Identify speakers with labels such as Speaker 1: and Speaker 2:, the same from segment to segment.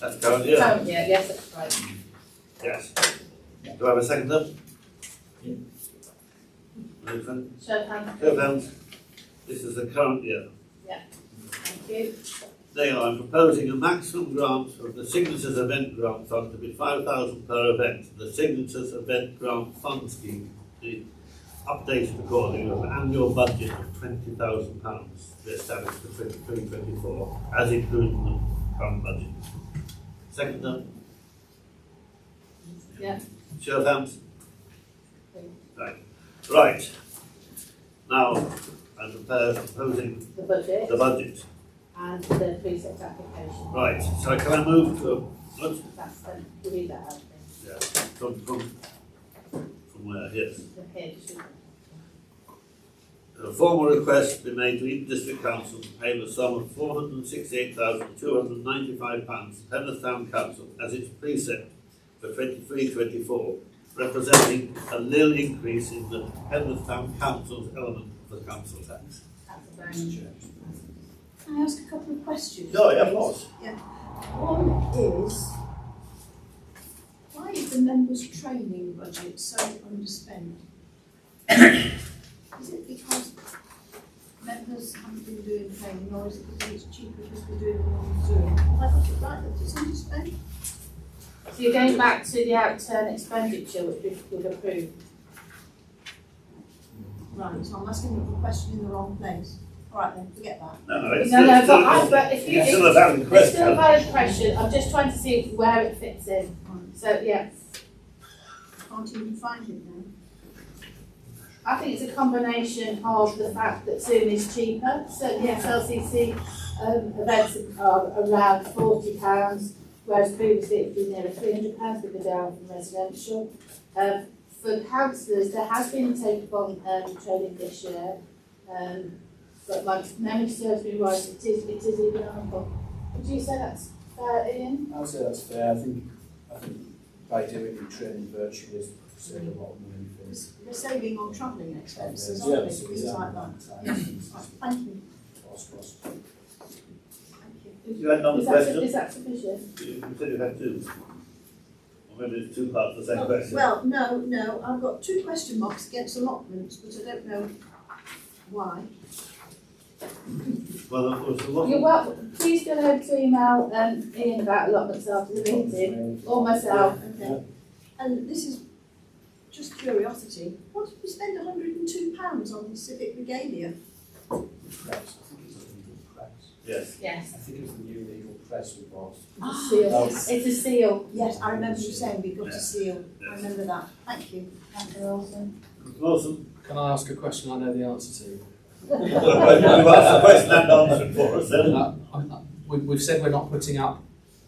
Speaker 1: That's Karen, yeah.
Speaker 2: Oh, yeah, yes, that's right.
Speaker 1: Yes. Do I have a second then? Nathan,
Speaker 2: Show of hands.
Speaker 1: go down. This is the current year.
Speaker 2: Thank you.
Speaker 1: They are proposing a maximum grant of the Signatures Event Grant Fund to be five thousand per event. The Signatures Event Grant Fund scheme is updated according to an annual budget of twenty thousand pounds to be established for twenty twenty twenty four, as included in the current budget. Second up,
Speaker 2: Yeah,
Speaker 1: show of hands. Right, right. Now, I'm prepared- proposing
Speaker 2: the budget
Speaker 1: the budget.
Speaker 2: and the precept application.
Speaker 1: Right, so can I move to, let's
Speaker 2: That's the, we need that out
Speaker 1: Yeah, from, from, from where, yes.
Speaker 2: the page.
Speaker 1: A formal request be made to each district council to pay the sum of four hundred and sixty-eight thousand, two hundred and ninety-five pounds to Penrith Town Council as its precept for twenty-three, twenty-four, representing a nil increase in the Penrith Town Council's element of the council tax.
Speaker 2: That's the very.
Speaker 3: Can I ask a couple of questions?
Speaker 1: No, yeah, of course.
Speaker 3: One is, why is the members' training budget so underspent? Is it because members haven't been doing training, or is it because it's cheaper just to do it on Zoom? Have I got it right that it's underspent?
Speaker 2: So you're going back to the outturn expenditure which we would approve.
Speaker 3: Right, so I'm asking the question in the wrong place. All right then, forget that.
Speaker 1: No, no, it's
Speaker 2: No,
Speaker 1: still,
Speaker 2: no,
Speaker 1: it's
Speaker 2: but I,
Speaker 1: still,
Speaker 2: but if you,
Speaker 1: it's still a
Speaker 2: it's
Speaker 1: valid
Speaker 2: it's still
Speaker 1: question.
Speaker 2: a valid question, I'm just trying to see where it fits in. So, yes,
Speaker 3: Can't even find it now.
Speaker 2: I think it's a combination of the fact that Zoom is cheaper, so yes, LCC, um, events are around forty pounds, whereas previously it'd been nearly three hundred pounds with the down from residential. Um, for councillors, there has been a take on, um, training this year, um, but my memory serves me right, it is, it is economical. Would you say that's fair, Ian?
Speaker 4: I'd say that's fair. I think, I think by doing the training virtually is saved a lot of money for us.
Speaker 3: They're saving on travelling expenses,
Speaker 4: Yeah,
Speaker 3: aren't they,
Speaker 4: so
Speaker 3: things
Speaker 4: yeah,
Speaker 3: like that?
Speaker 4: times,
Speaker 3: Right, Thank you,
Speaker 4: cost, cost.
Speaker 3: thank you.
Speaker 1: You had another
Speaker 2: Is that-
Speaker 1: question?
Speaker 2: Is that sufficient?
Speaker 1: You said you had two. Or maybe it's two parts of the same question.
Speaker 3: Well, no, no, I've got two question marks against allotments, but I don't know why.
Speaker 1: Well, of course, a lot.
Speaker 2: You're welcome, please go ahead to email um Ian about allotments after the meeting, or myself.
Speaker 3: Okay. uh, And this is just curiosity, what did we spend hundred and two pounds on this civic regalia?
Speaker 4: Press. I think it's the legal press.
Speaker 1: Yes.
Speaker 2: Yes. Ah.
Speaker 4: I think it was the new legal press we bought.
Speaker 2: Seal, it's a seal.
Speaker 3: Yes, I remember you saying we got
Speaker 1: Yeah.
Speaker 3: a seal, I
Speaker 1: Yes.
Speaker 3: remember that, thank you.
Speaker 2: Councillor Olsen.
Speaker 1: Awesome.
Speaker 5: Can I ask a question I know the answer to?
Speaker 1: You've asked the question and answered for us then.
Speaker 5: Uh, I'm- uh, we- We've said we're not putting up,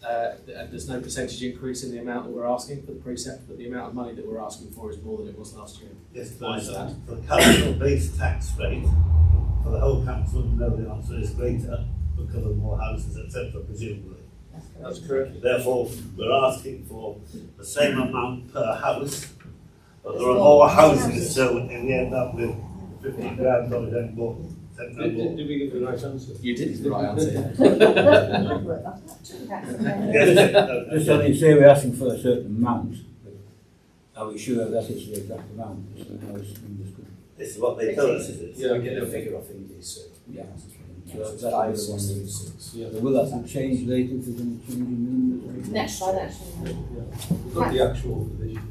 Speaker 5: uh, th- and there's no percentage increase in the amount that we're asking for the precept, but the amount of money that we're asking for is more than it was last year.
Speaker 1: Yes, the
Speaker 5: Why is that?
Speaker 1: the council base tax rate for the whole council, we know the answer is greater because of more houses, etc. presumably.
Speaker 5: That's correct.
Speaker 1: Therefore, we're asking for the same amount per house, but there are
Speaker 2: There's
Speaker 1: more
Speaker 2: more
Speaker 1: houses, so we we end up with fifteen grand or then more, ten grand
Speaker 6: Did, did,
Speaker 1: more.
Speaker 6: did we get the right answer?
Speaker 5: You did the right answer.
Speaker 3: I've worked that out too.
Speaker 2: Councillor
Speaker 1: Yes, no,
Speaker 7: Just on it, say we're asking for a certain amount, but are we sure that is the exact amount? Is that how it's understood?
Speaker 1: This is what they tell us, is it?
Speaker 4: Yeah, we get a figure off in this.
Speaker 7: Yeah. So
Speaker 4: So
Speaker 7: that
Speaker 4: five,
Speaker 7: is one.
Speaker 4: six, three, six.
Speaker 6: Yeah.
Speaker 7: Will that not change later if there's any change in numbers?
Speaker 2: Olsen. Next slide, actually.
Speaker 6: We've got the actual for this year.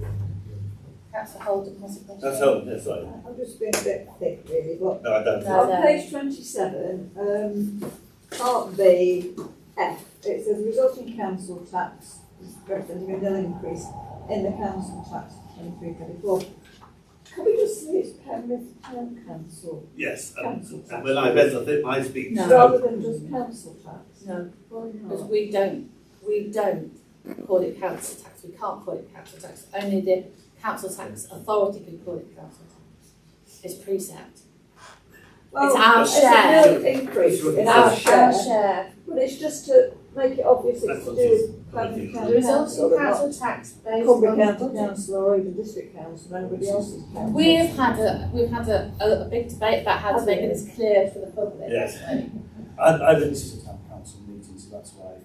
Speaker 2: Councillor Holden has a question.
Speaker 1: That's all, that's right.
Speaker 8: I'm just being a bit thick really, but
Speaker 1: No, I don't.
Speaker 2: No.
Speaker 8: on page twenty-seven, um, part B, F, it says resulting council tax, representing a nil increase in the council tax for twenty-three, twenty-four. Can we just say it's Penrith Town Council
Speaker 1: Yes, Um, and, and when I read the thing, my speech.
Speaker 2: No.
Speaker 8: rather than just council tax?
Speaker 2: No,
Speaker 8: Why not?
Speaker 2: because we don't, we don't call it council tax, we can't call it council tax. Only the council tax authority can call it council tax. It's precept.
Speaker 8: Well,
Speaker 2: our
Speaker 8: it's a
Speaker 2: share.
Speaker 8: nil Increase in
Speaker 2: Our,
Speaker 8: our
Speaker 2: our
Speaker 8: share,
Speaker 2: share
Speaker 8: but it's just to make it obvious it's
Speaker 1: That's
Speaker 8: to
Speaker 1: what
Speaker 8: do
Speaker 1: it is.
Speaker 8: with Penrith
Speaker 2: The
Speaker 8: Town Council.
Speaker 2: resulting
Speaker 8: but not
Speaker 2: council tax based
Speaker 8: Cumbria County
Speaker 2: on.
Speaker 8: Council or even District Council, anybody else's council.
Speaker 2: We have had a, we've had a, a, a big debate about how to make this clear for the public.
Speaker 1: Yes. I, I,
Speaker 4: This is a town council meeting, so that's why